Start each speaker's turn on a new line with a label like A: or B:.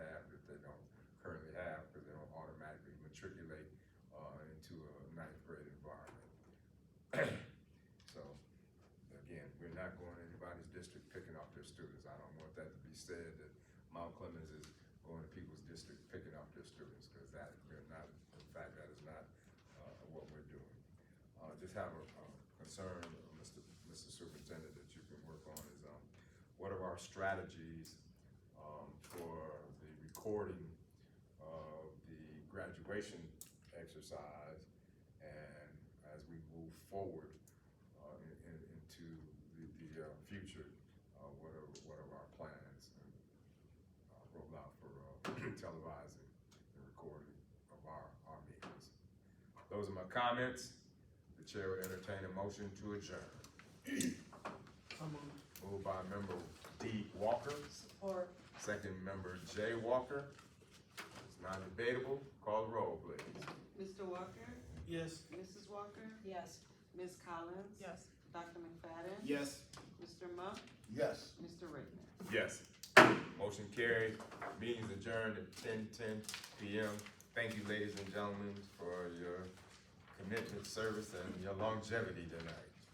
A: uh, students. I don't want that to be said that Mount Clemens is going to people's district, picking off their students, because that, we're not, in fact, that is not, uh, what we're doing. Uh, just have a, um, concern, Mr. Mr. Superintendent, that you can work on is, um, what are our strategies, um, for the recording of the graduation exercise? And as we move forward, uh, in, in, into the, the, uh, future, uh, what are, what are our plans and, uh, rollout for, uh, televising and recording of our, our meetings? Those are my comments. The chair will entertain a motion to adjourn. Moved by member D Walker,
B: Or
A: second member J Walker. It's not debatable. Call the roll, please.
C: Mr. Walker,
D: Yes.
C: Mrs. Walker,
B: Yes.
C: Ms. Collins.
B: Yes.
C: Dr. McFadden.
D: Yes.
C: Mr. Monk,
D: Yes.
C: Mr. Rickman.
A: Yes. Motion carried. Meeting's adjourned at ten ten PM. Thank you, ladies and gentlemen, for your commitment, service, and your longevity tonight.